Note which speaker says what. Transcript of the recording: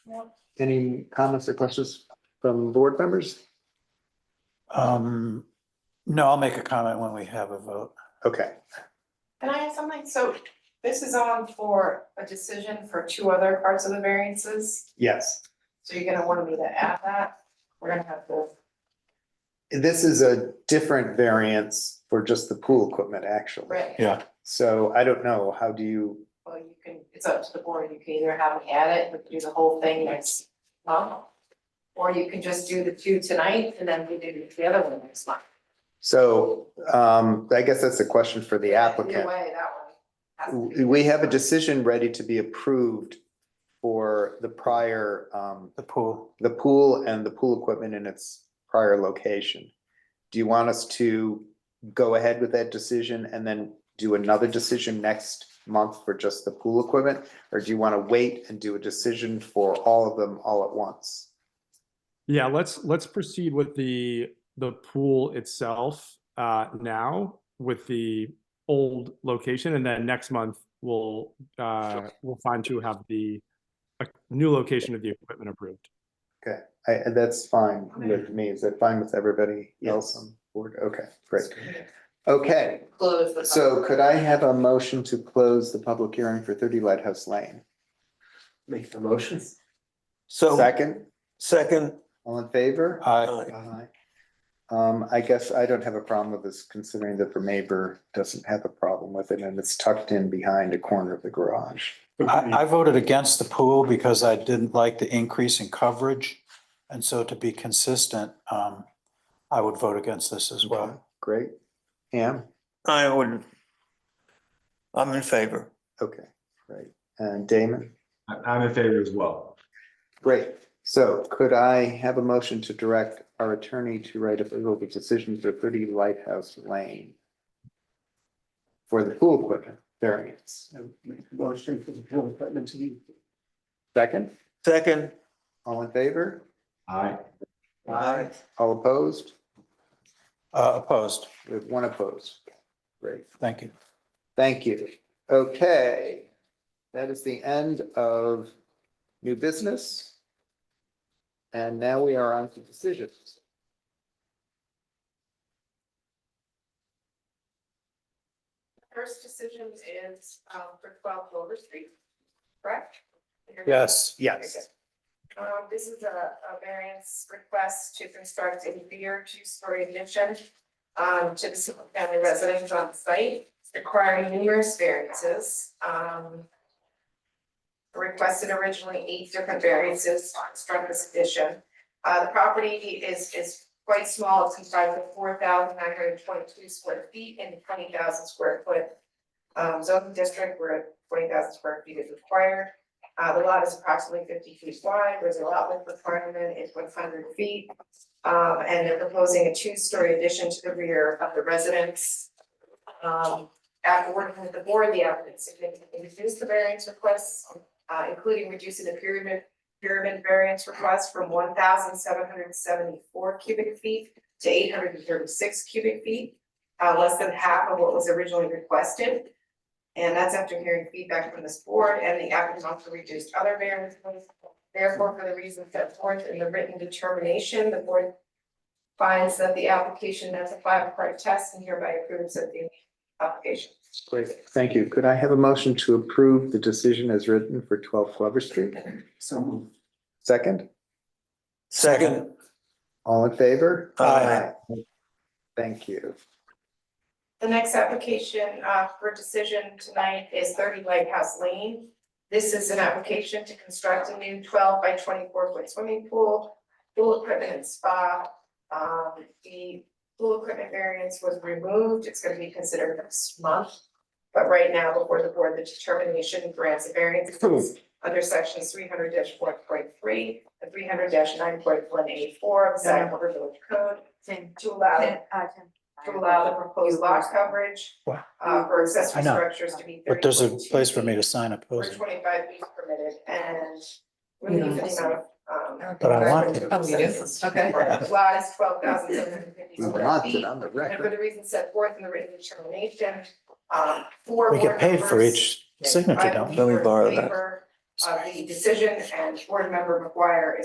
Speaker 1: Any comments or questions from board members?
Speaker 2: Um, no, I'll make a comment when we have a vote.
Speaker 1: Okay,
Speaker 3: Can I ask something? So this is on for a decision for two other parts of the variances,
Speaker 1: yes.
Speaker 3: so you're gonna want me to add that? We're gonna have to,
Speaker 1: This is a different variance for just the pool equipment, actually.
Speaker 3: right?
Speaker 2: Yeah.
Speaker 1: So I don't know, how do you,
Speaker 3: Well, you can, it's up to the board. You can either have me add it, we can do the whole thing next month. Or you can just do the two tonight and then we do the other one next month.
Speaker 1: so um, I guess that's a question for the
Speaker 3: Either
Speaker 1: applicant.
Speaker 3: way, that one. has to be-
Speaker 1: We have a decision ready to be approved for the prior, um,
Speaker 2: The pool,
Speaker 1: the pool and the pool equipment in its prior location. Do you want us to go ahead with that decision and then do another decision next month for just the pool equipment? Or do you want to wait and do a decision for all of them all at once?
Speaker 4: Yeah, let's let's proceed with the the pool itself uh now with the old location and then next month we'll uh we'll find to have the a new location of the equipment approved.
Speaker 1: I, and that's fine with me. Is that fine with everybody else on board? Okay, great. Okay,
Speaker 3: Close the.
Speaker 1: so could I have a motion to close the public hearing for thirty Lighthouse Lane?
Speaker 5: Make the motion.
Speaker 2: so
Speaker 1: Second,
Speaker 5: Second.
Speaker 1: all in favor?
Speaker 2: I,
Speaker 1: Aye. Um, I guess I don't have a problem with this considering that the neighbor doesn't have a problem with it and it's tucked in behind a corner of the garage.
Speaker 2: I I voted against the pool because I didn't like the increase in coverage. And so to be consistent, um, I would vote against this as
Speaker 1: Okay,
Speaker 2: well.
Speaker 1: Great. Pam?
Speaker 5: I would. I'm in favor.
Speaker 1: Okay, great. And Damon?
Speaker 6: I- I'm in favor as well.
Speaker 1: Great. So could I have a motion to direct our attorney to write a legal decision for thirty Lighthouse Lane? For the pool equipment variance.
Speaker 5: Motion for the pool equipment to be.
Speaker 1: Second,
Speaker 5: Second.
Speaker 1: all in favor?
Speaker 6: I,
Speaker 5: Aye.
Speaker 1: All opposed?
Speaker 2: Uh, opposed.
Speaker 1: We have one opposed. Great.
Speaker 2: Thank you.
Speaker 1: Thank you. Okay, that is the end of new business. And now we are on to decisions.
Speaker 3: First decision is um for twelve Clover Street, correct?
Speaker 2: Yes.
Speaker 1: Yes.
Speaker 3: Um, this is a, a variance request to construct a rear two-story addition um, to the single family residence on site, requiring numerous variances. Um, requested originally eight different variances to construct this addition. Uh, the property is, is quite small, it's comprised of four thousand nine hundred twenty-two square feet and twenty thousand square foot um, zoning district where twenty thousand square feet is required. Uh, the lot is approximately fifty feet wide, there's a lot width requirement, it's one hundred feet. Um, and they're proposing a two-story addition to the rear of the residence. Um, after working with the board, the applicant significantly reduced the variance requests, uh, including reducing the pyramid, pyramid variance request from one thousand seven hundred seventy-four cubic feet to eight hundred and thirty-six cubic feet, uh, less than half of what was originally requested. And that's after hearing feedback from this board and the applicant also reduced other variances. Therefore, for the reasons set forth in the written determination, the board finds that the application has a five-part test and hereby approves of the application.
Speaker 1: Great, thank you. Could I have a motion to approve the decision as written for twelve Glover Street?
Speaker 5: So moved.
Speaker 1: Second,
Speaker 5: Second.
Speaker 1: all in favor?
Speaker 5: Aye.
Speaker 1: Thank you.
Speaker 3: The next application uh, for decision tonight is thirty Lighthouse Lane. This is an application to construct a new twelve by twenty-four foot swimming pool, pool equipment and spa. Um, The pool equipment variance was removed, it's gonna be considered next month. But right now, before the board, the determination grants a variance under sections three hundred four point three and three hundred nine point one eight four of the Sag Harbor Village Code
Speaker 7: Tim,
Speaker 3: to allow
Speaker 7: Tim, uh, Tim.
Speaker 3: to allow the proposed lot coverage
Speaker 2: Wow.
Speaker 3: uh, for accessory
Speaker 2: I know.
Speaker 3: structures to be
Speaker 2: But
Speaker 3: thirty.
Speaker 2: there's a place for me to sign
Speaker 3: Or
Speaker 2: opposing.
Speaker 3: twenty-five feet permitted and
Speaker 7: You don't
Speaker 3: relief in the amount of, um.
Speaker 2: But I want
Speaker 7: Oh, we do? Okay.
Speaker 3: The Lot is twelve thousand seven hundred fifty
Speaker 1: We
Speaker 3: square
Speaker 1: want it
Speaker 3: feet.
Speaker 1: on the
Speaker 3: And for
Speaker 1: record.
Speaker 3: the reasons set forth in the written determination, um, four.
Speaker 2: We get
Speaker 3: board
Speaker 2: paid for
Speaker 3: members,
Speaker 2: each signature,
Speaker 3: five
Speaker 2: don't we?
Speaker 5: Let me
Speaker 3: members in
Speaker 5: borrow that.
Speaker 3: favor, uh, the decision and board member McGuire